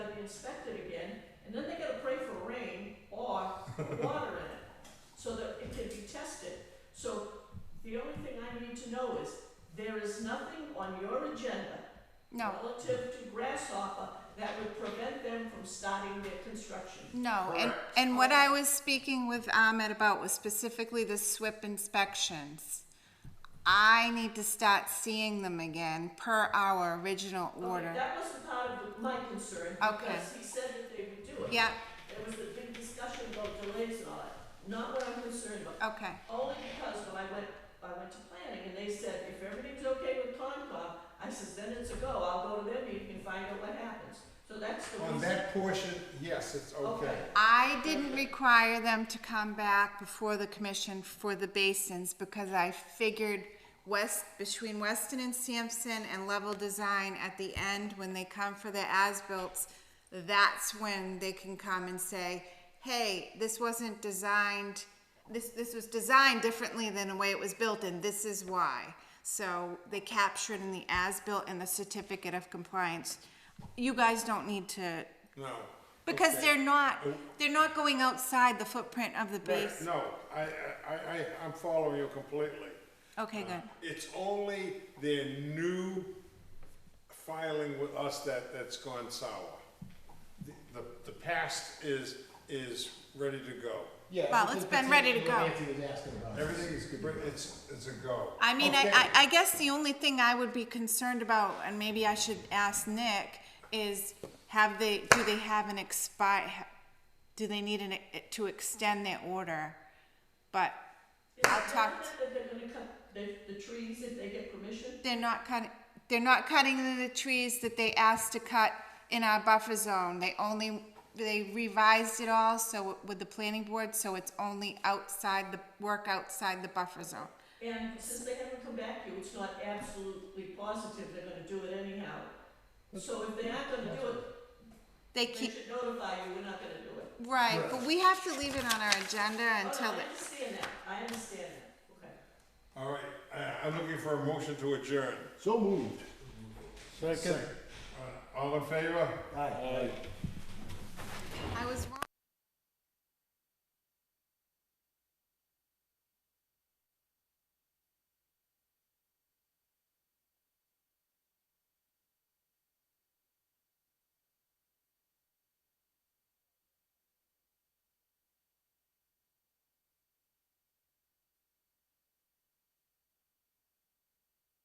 inspected again, and then they gotta pray for rain or water in it, so that it can be tested. So the only thing I need to know is, there is nothing on your agenda No, relative to Grasshopper that would prevent them from starting their construction. no. And, Correct. and what I was speaking with Ahmed about was specifically the SWIP inspections. I need to start seeing them again per our original Okay, order. That wasn't part of the- my concern, Okay. because he said that they would do it. Yeah, There was a big discussion about delays and all that, not what I'm concerned about. okay, Only because when I went, I went to planning and they said, if everything's okay with Concom, I says, then it's a go, I'll go to their meeting and find out what happens. So that's the On reason. that portion, yes, it's okay. Okay. I didn't require them to come back before the commission for the basins because I figured west, between Weston and Sampson and Level Design at the end, when they come for their as-bills, that's when they can come and say, hey, this wasn't designed, this, this was designed differently than the way it was built and this is why. So they captured in the as-built and the certificate of compliance. You guys don't need to No. because Okay. they're not, Oh. they're not going outside the footprint of the Right, base. No, I, I, I, I- I'm following you completely. Okay, good. It's only their new filing with us that, that's gone sour. The, the- the past is, is ready to go. Yeah. Well, everything it's been that's- ready to what go. Nancy was asking about. Everything is, good. it's, it's a go. I mean, I, Okay. I, I guess the only thing I would be concerned about, and maybe I should ask Nick, is have they, do they have an expi, ha- do they need an, e, to extend their order? But I'll talk, Is it that they're gonna cut the, the trees if they get permission? they're not cutting, they're not cutting the trees that they asked to cut in our buffer zone. They only, they revised it all, so with the planning board, so it's only outside the, work outside the buffer zone. And since they haven't come back to you, it's not absolutely positive they're gonna do it anyhow. So if they're not gonna do it, They they keep, should notify you, we're not gonna do it. right, but we have to leave it on our agenda until Oh, no, I it's, understand that, I understand that, okay. All right, I, I'm looking for a motion to adjourn. So moved. Second. All in favor? Aye.